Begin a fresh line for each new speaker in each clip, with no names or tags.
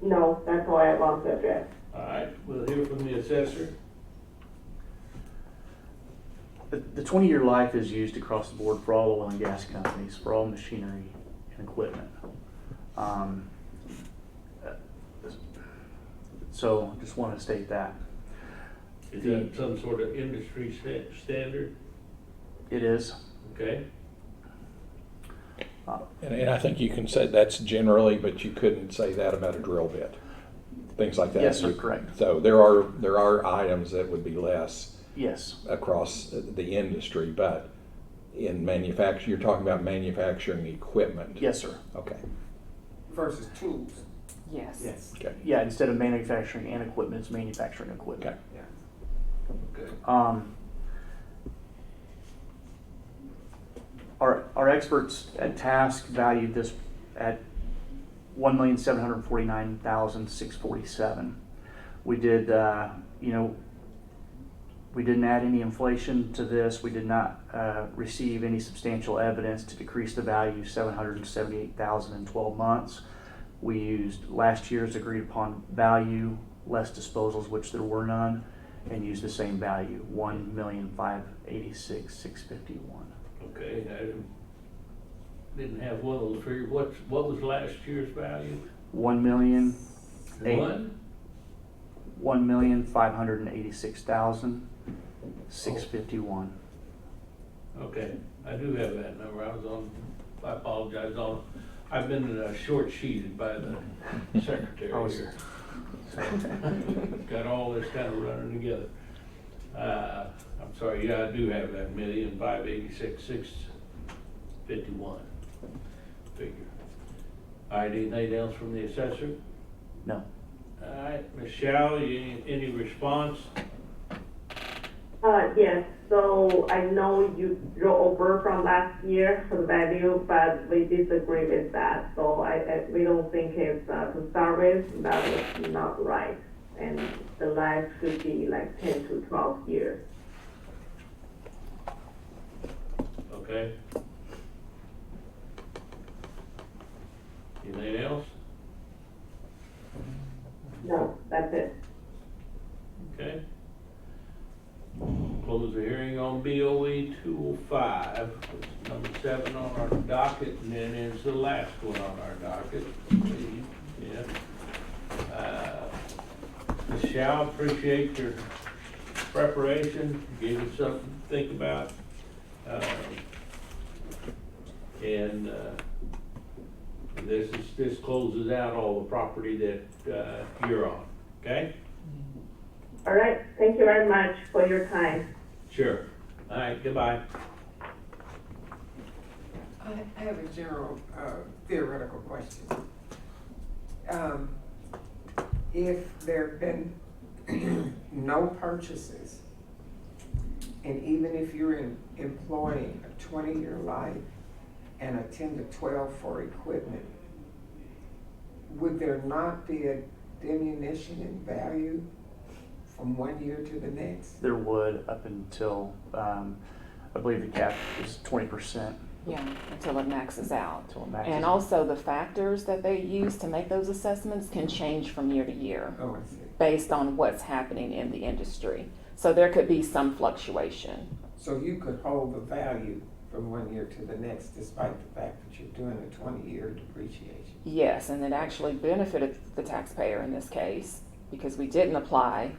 No, that's all I have on subject.
All right, we'll hear from the assessor.
The, the twenty-year life is used across the board for all oil and gas companies, for all machinery and equipment. Um, uh, So, just wanna state that.
Is that some sort of industry sta- standard?
It is,
Okay,
And, and I think you can say that's generally, but you couldn't say that about a drill bit, things like that.
Yes, sir,
You-
correct.
So there are, there are items that would be less
yes,
across the industry, but in manufacture, you're talking about manufacturing equipment.
yes, sir.
Okay,
versus tools.
Yes.
okay,
Yeah, instead of manufacturing and equipment, it's manufacturing equipment.
okay.
good.
Um, our, our experts at task valued this at one million seven hundred forty-nine thousand six forty-seven. We did, uh, you know, we didn't add any inflation to this. We did not uh, receive any substantial evidence to decrease the value seven hundred and seventy-eight thousand in twelve months. We used last year's agreed upon value, less disposals, which there were none, and used the same value, one million five eighty-six six fifty-one.
Okay, I didn't- didn't have one of those figures. What's, what was last year's value?
One million, Eight.
One?
one million five hundred and eighty-six thousand six fifty-one.
Okay, I do have that number. I was on, I apologize on, I've been uh, short sheeted by the secretary
was-
here. Got all this kind of running together. Uh, I'm sorry, yeah, I do have that million five eighty-six, six fifty-one figure. All right, anything else from the assessor?
No,
All right, Michelle, you, any response?
Uh, yes, so I know you drew over from last year for the value, but we disagree with that. So I, I, we don't think it's, uh, to start with, that was not right. And the life should be like ten to twelve years.
Okay. Anything else?
No, that's it.
Okay. Close the hearing on BOE two oh five, number seven on our docket, and then is the last one on our docket, I believe. yeah. Uh, Michelle, appreciate your preparation, gave us something to think about. Um, And, uh, this is, this closes out all the property that, uh, you're on, okay?
All right, thank you very much for your time.
Sure. All right, goodbye.
I I have a general uh, theoretical question. Um, If there've been no purchases, and even if you're in- employing a twenty-year life and a ten to twelve for equipment, would there not be a diminution in value from one year to the next?
there would up until, um, I believe the cap is twenty percent
Yeah, until it maxes out.
until it maxes.
And
out.
also the factors that they use to make those assessments can change from year to year
Oh, I see.
based on what's happening in the industry. So there could be some fluctuation.
So you could hold the value from one year to the next despite the fact that you're doing a twenty-year depreciation.
Yes, and it actually benefited the taxpayer in this case because we didn't apply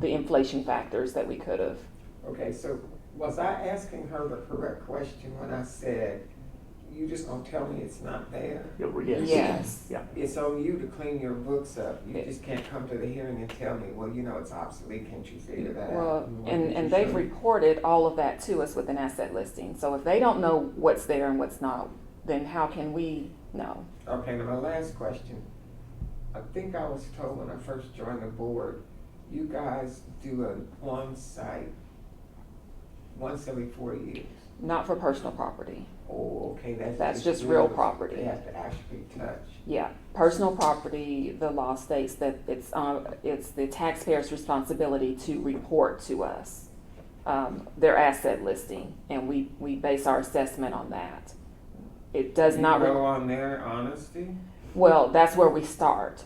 the inflation factors that we could have.
Okay, so was I asking her the correct question when I said, you just gonna tell me it's not there?
Yeah, Yes.
Yes.
Yeah,
It's on you to clean your books up. You
It-
just can't come to the hearing and tell me, well, you know, it's obsolete, can't you figure that out?
Well,
Why
and,
didn't you
and they've
show me?
reported all of that to us with an asset listing. So if they don't know what's there and what's not, then how can we know?
Okay, now my last question. I think I was told when I first joined the board, you guys do a on-site once every four years.
Not for personal property.
Oh, okay, that's.
That's just real
yours.
property.
They have to actually touch.
Yeah, personal property, the law states that it's, uh, it's the taxpayer's responsibility to report to us, um, their asset listing, and we, we base our assessment on that. It does
You
not,
Go
re-
on there, honesty?
well, that's where we start.